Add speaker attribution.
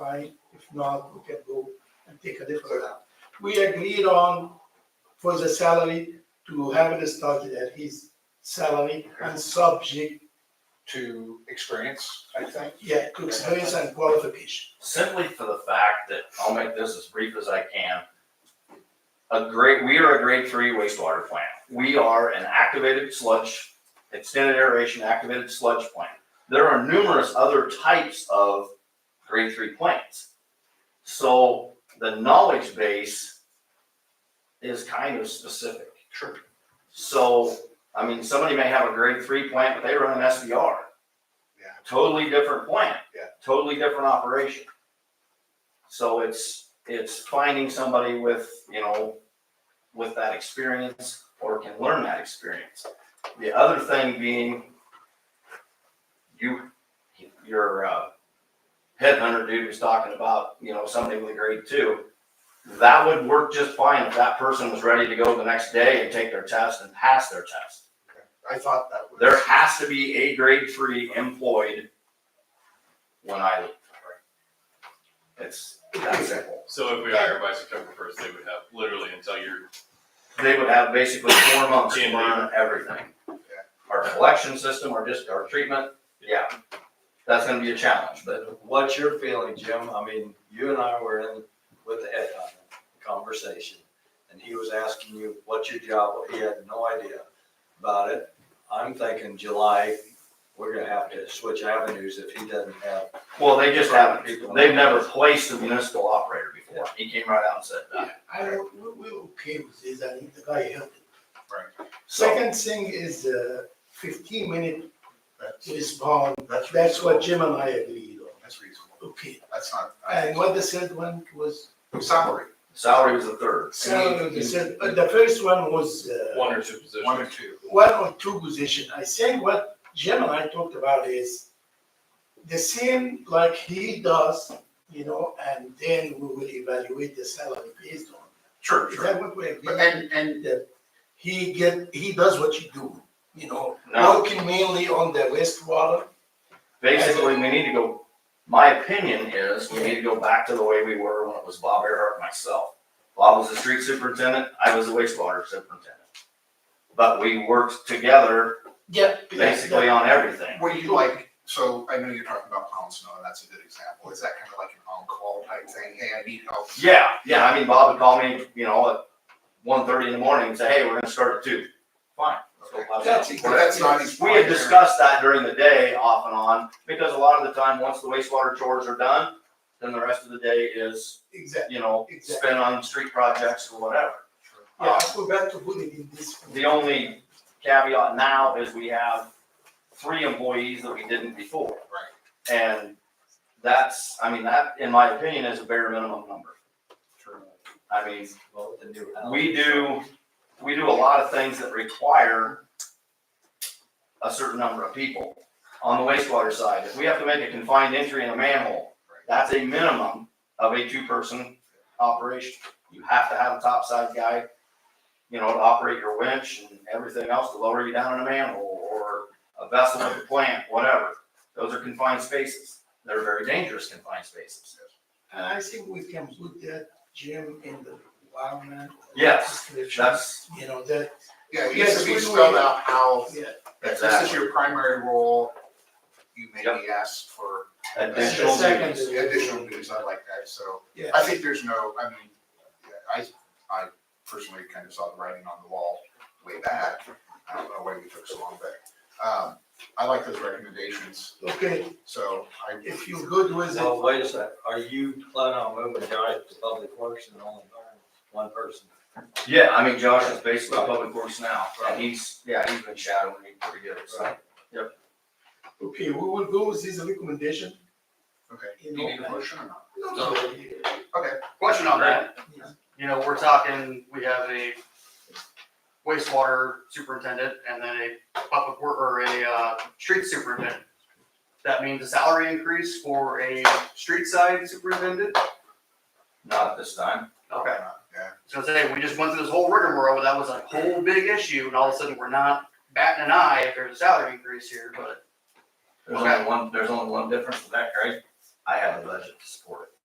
Speaker 1: tonight. If not, we can go and take a different route. We agreed on for the salary to have it started at his salary and subject,
Speaker 2: to experience, I
Speaker 1: I
Speaker 2: think.
Speaker 1: think, yeah, to experience and qualification.
Speaker 3: simply for the fact that, I'll make this as brief as I can. A grade, we are a grade three wastewater plant. We are an activated sludge, extended aeration activated sludge plant. There are numerous other types of grade three plants. So the knowledge base is kind of specific.
Speaker 2: Sure.
Speaker 3: So, I mean, somebody may have a grade three plant, but they run an SBR.
Speaker 2: Yeah.
Speaker 3: Totally different plant.
Speaker 2: Yeah.
Speaker 3: Totally different operation. So it's, it's finding somebody with, you know, with that experience or can learn that experience. The other thing being you, your, uh, headhunter dude was talking about, you know, somebody with a grade two that would work just fine if that person was ready to go the next day and take their test and pass their test.
Speaker 2: I thought that was.
Speaker 3: There has to be a grade three employed when I leave. It's that simple.
Speaker 4: So if we hire by September first, they would have literally until you're,
Speaker 3: They would have basically four months to learn everything. Our collection system or just our treatment, yeah, that's gonna be a challenge, but
Speaker 5: But what's your feeling, Jim? I mean, you and I were in with the head on the conversation, and he was asking you what's your job, he had no idea about it. I'm thinking July, we're gonna have to switch avenues if he doesn't have.
Speaker 3: well, they just haven't. They've never placed a municipal operator before. He came right out and said that.
Speaker 1: I, don't- we, we're okay with this, I think the guy helped.
Speaker 3: So
Speaker 1: Second thing is uh fifteen minute respond, that's what Jim and I agreed on.
Speaker 2: That's reasonable.
Speaker 1: Okay,
Speaker 2: That's not.
Speaker 1: and what the third one was?
Speaker 2: Salary,
Speaker 3: salary was the third.
Speaker 1: So the third, uh, the first one was uh,
Speaker 4: one or two
Speaker 2: one or
Speaker 4: positions.
Speaker 2: two.
Speaker 1: one or two position. I think what Jim and I talked about is the same like he does, you know, and then we will evaluate the salary based on.
Speaker 2: Sure,
Speaker 1: Is that what we agreed?
Speaker 2: But and, and
Speaker 1: that he get, he does what you do, you know,
Speaker 3: No.
Speaker 1: working mainly on the wastewater.
Speaker 3: Basically, we need to go, my opinion is, we need to go back to the way we were when it was Bob Earhart and myself. Bob was the street superintendent, I was the wastewater superintendent. But we worked together
Speaker 1: Yeah.
Speaker 3: basically on everything.
Speaker 2: what do you like, so I know you're talking about Pound Snow, and that's a good example. Is that kind of like an on-call type thing? Hey, I need help.
Speaker 3: Yeah, yeah, I mean, Bob would call me, you know, at one thirty in the morning and say, hey, we're gonna start at two. Fine. let's go plow
Speaker 2: That's,
Speaker 3: some corn.
Speaker 2: that's not. his
Speaker 3: We had
Speaker 2: primary-
Speaker 3: discussed that during the day off and on, because a lot of the time, once the wastewater chores are done, then the rest of the day is,
Speaker 1: Exactly.
Speaker 3: you know,
Speaker 1: Exactly.
Speaker 3: spent on street projects or whatever.
Speaker 1: Yeah, I forgot to put it in this.
Speaker 3: The only caveat now is we have three employees that we didn't before. Right. And that's, I mean, that, in my opinion, is a bare minimum number. I mean,
Speaker 5: well, the new house.
Speaker 3: we do, we do a lot of things that require a certain number of people. On the wastewater side, if we have to make a confined entry in a manhole, that's a minimum of a two-person operation. You have to have a topside guy, you know, to operate your winch and everything else to lower you down in a manhole or a vessel at the plant, whatever. Those are confined spaces. They're very dangerous confined spaces.
Speaker 1: And I think we can put that gym in the environment.
Speaker 3: Yes,
Speaker 1: description,
Speaker 3: That's,
Speaker 1: You know, that,
Speaker 2: Yeah, it
Speaker 1: Yes,
Speaker 2: needs to be
Speaker 1: we-
Speaker 2: spelled out how,
Speaker 1: yeah,
Speaker 2: if this is
Speaker 3: Exactly.
Speaker 2: your primary role, you may
Speaker 3: Yep.
Speaker 2: be asked for
Speaker 3: additional
Speaker 1: Second.
Speaker 3: duties.
Speaker 2: additional duties. I like that, so.
Speaker 1: yeah.
Speaker 2: I think there's no, I mean, I, I personally kind of saw the writing on the wall way back. I don't know why we took so long, but, um, I like those recommendations,
Speaker 1: Okay,
Speaker 2: so I.
Speaker 1: if you're good with it,
Speaker 5: Well, wait a sec, are you planning on moving Johnny to public works and only hiring one person?
Speaker 3: Yeah, I mean, Josh is basically public works now, and he's, yeah, he's been shadowing me pretty good, so.
Speaker 1: okay, we will go with this recommendation.
Speaker 2: Okay,
Speaker 1: You
Speaker 2: you
Speaker 1: know,
Speaker 2: need a motion or not?
Speaker 1: No, no, yeah.
Speaker 2: Okay,
Speaker 6: Question on that,
Speaker 1: Yeah.
Speaker 6: you know, we're talking, we have a wastewater superintendent and then a public work, or a, uh, street superintendent. That means a salary increase for a street side superintendent?
Speaker 3: Not at this time.
Speaker 6: Okay,
Speaker 2: yeah,
Speaker 6: so I'm saying, we just went through this whole rigmarole, that was a whole big issue, and all of a sudden, we're not batting an eye if there's a salary increase here, but
Speaker 3: There's only one, there's only one difference with that, right? I have a budget to support